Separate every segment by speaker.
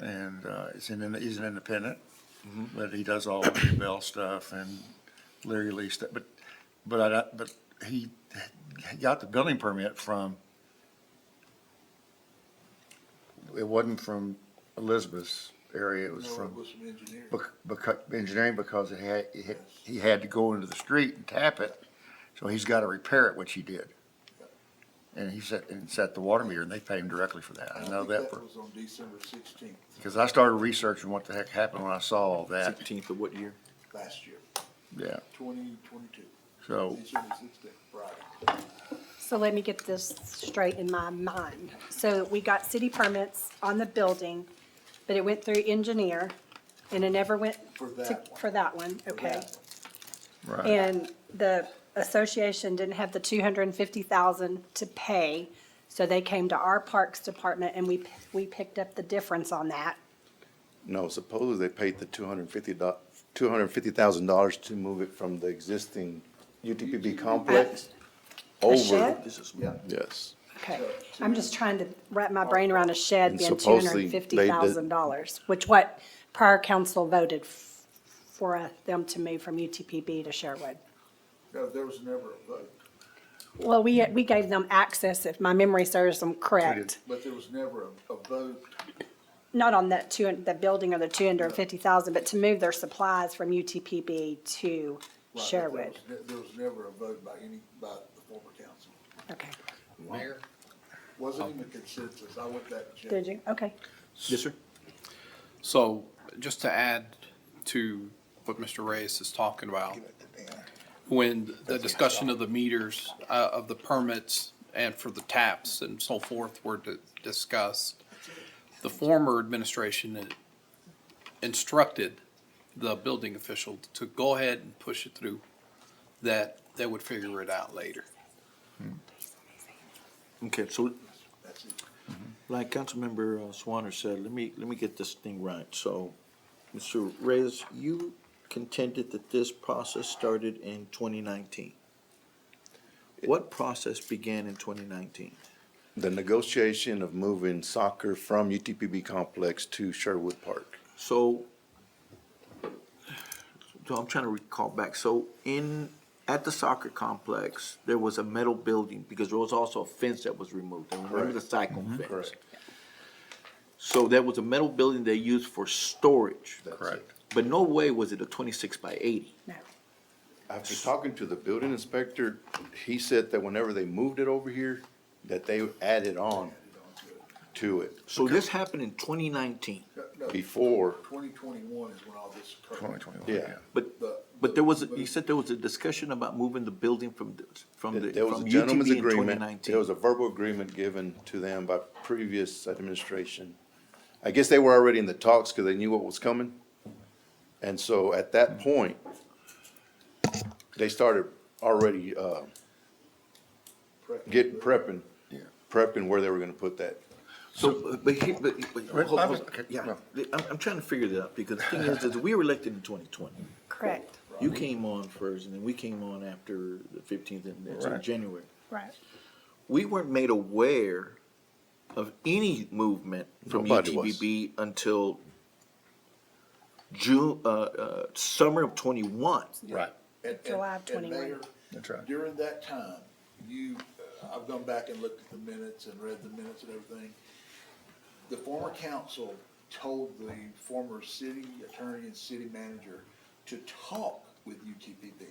Speaker 1: and uh, he's an, he's an independent,
Speaker 2: Mm-hmm.
Speaker 1: but he does all of the Bell stuff and Larry Lee stuff, but, but I, don't- but he got the building permit from, it wasn't from Elizabeth's area, it was
Speaker 2: No, it
Speaker 1: from
Speaker 2: was some engineer.
Speaker 1: because, engineering, because it had, it had- he had to go into the street and tap it, so he's gotta repair it, which he did. And he set, and set the water meter, and they paid him directly for that, I know that
Speaker 2: think
Speaker 1: for,
Speaker 2: was on December sixteenth
Speaker 1: because I started researching what the heck happened when I saw all that,
Speaker 3: Sixteenth of what year?
Speaker 2: last year,
Speaker 1: yeah,
Speaker 2: twenty twenty-two,
Speaker 1: so,
Speaker 2: December sixteenth, Friday.
Speaker 4: So let me get this straight in my mind. So we got city permits on the building, but it went through engineer, and it never went
Speaker 2: For
Speaker 4: to-
Speaker 2: that one.
Speaker 4: For that one, okay.
Speaker 2: that
Speaker 1: right,
Speaker 4: And the association didn't have the two hundred and fifty thousand to pay, so they came to our Parks Department, and we, p- we picked up the difference on that.
Speaker 3: No, supposedly they paid the two hundred and fifty dollars two hundred and fifty thousand dollars to move it from the existing UTPB complex
Speaker 4: The
Speaker 3: over.
Speaker 4: shed?
Speaker 2: Yeah.
Speaker 3: Yes.
Speaker 4: Okay, I'm just trying to wrap my brain around a shed
Speaker 3: And
Speaker 4: being two hundred
Speaker 3: supposedly
Speaker 4: and
Speaker 3: they did-
Speaker 4: fifty thousand dollars, which what prior council voted f- for uh, them to move from UTPB to Sherwood.
Speaker 2: No, there was never a vote,
Speaker 4: Well, we, we gave them access, if my memory serves them correct,
Speaker 2: but there was never a, a vote.
Speaker 4: not on that two, the building or the two hundred and fifty thousand, but to move their supplies from UTPB to
Speaker 2: right, there
Speaker 4: Sherwood.
Speaker 2: was ne- There was never a vote by any, by the former council.
Speaker 4: Okay,
Speaker 1: Mayor?
Speaker 2: Wasn't
Speaker 1: Oh.
Speaker 2: even a consensus, I went that. checked.
Speaker 4: did you? Okay.
Speaker 3: Yes, sir.
Speaker 5: So, just to add to what Mr. Reyes is talking about, when the discussion of the meters, uh, of the permits and for the taps and so forth were di- discussed, the former administration instructed the building official to go ahead and push it through, that they would figure it out later.
Speaker 6: Okay, so
Speaker 2: That's it.
Speaker 6: like Councilmember uh, Swanner said, let me, let me get this thing right. So, Mr. Reyes, you contended that this process started in twenty nineteen. What process began in twenty nineteen?
Speaker 3: The negotiation of moving soccer from UTPB complex to Sherwood Park.
Speaker 6: So, so I'm trying to recall back. So in, at the soccer complex, there was a metal building because there was also a fence that was removed. I remember the cycle fence.
Speaker 3: Correct.
Speaker 6: So there was a metal building they used for storage.
Speaker 1: Correct.
Speaker 6: But no way was it a twenty-six by eighty.
Speaker 4: No.
Speaker 3: After talking to the building inspector, he said that whenever they moved it over here, that they added on to it
Speaker 6: So this happened in twenty nineteen,
Speaker 2: No,
Speaker 3: before,
Speaker 2: twenty twenty-one is when all this occurred.
Speaker 1: Twenty twenty-one,
Speaker 3: Yeah.
Speaker 1: yeah.
Speaker 6: but,
Speaker 2: The-
Speaker 6: but there was, you said there was a discussion about moving the building from, the- from the,
Speaker 3: there was
Speaker 6: from
Speaker 3: a gentleman's
Speaker 6: UTV in twenty
Speaker 3: agreement. There
Speaker 6: nineteen.
Speaker 3: was a verbal agreement given to them by previous administration. I guess they were already in the talks because they knew what was coming. And so at that point, they started already, uh,
Speaker 2: Correct.
Speaker 3: getting, prepping,
Speaker 1: Yeah.
Speaker 3: prepping where they were gonna put that.
Speaker 6: So, but here, but, but,
Speaker 1: Wait,
Speaker 6: hold-
Speaker 1: I
Speaker 6: hold-
Speaker 1: was- okay,
Speaker 6: yeah,
Speaker 1: no.
Speaker 6: I'm, I'm trying to figure that out, because the thing is, is we were elected in twenty twenty.
Speaker 4: Correct.
Speaker 6: You came on first, and then we came on after the fifteenth, and it's in
Speaker 1: Right.
Speaker 6: January.
Speaker 4: Right.
Speaker 6: we weren't made aware of any movement from
Speaker 3: Nobody was.
Speaker 6: UTBB until June, uh, uh, summer of twenty-one.
Speaker 1: Right.
Speaker 2: And- and-
Speaker 4: July of
Speaker 2: and
Speaker 4: 21.
Speaker 2: Mayor,
Speaker 1: That's right.
Speaker 2: During that time, you, uh, I've gone back and looked at the minutes and read the minutes and everything. The former council told the former city attorney and city manager to talk with UTPB.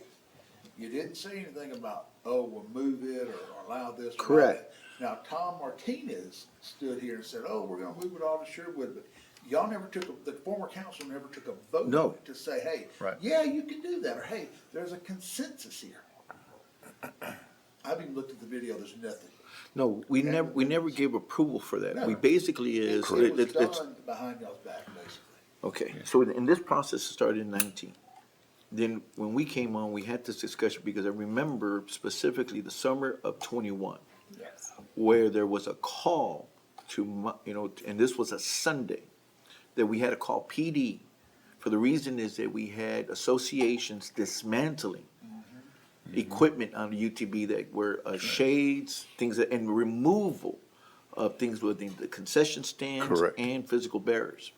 Speaker 2: You didn't say anything about, oh, we'll move it or allow this. or allow
Speaker 6: Correct.
Speaker 2: that. Now, Tom Martinez stood here and said, oh, we're gonna move it all to Sherwood, but y'all never took, a- the former council never took a vote
Speaker 6: No.
Speaker 2: to say, hey,
Speaker 1: Right.
Speaker 2: yeah, you can do that, or hey, there's a consensus here. I've even looked at the video, there's nothing.
Speaker 6: No, we never, we never gave approval for that. We
Speaker 2: Never.
Speaker 6: basically is,
Speaker 2: It
Speaker 6: it-
Speaker 2: was
Speaker 6: it's, it's,
Speaker 2: done behind y'all's back, basically.
Speaker 6: okay, so in this process it started in nineteen. Then when we came on, we had this discussion because I remember specifically the summer of twenty-one.
Speaker 2: Yes.
Speaker 6: where there was a call to, mu- you know, and this was a Sunday, that we had to call PD. For the reason is that we had associations dismantling equipment on the UTB that were uh, shades, things, that- and removal of things within the concession stands
Speaker 3: Correct.
Speaker 6: and physical barriers.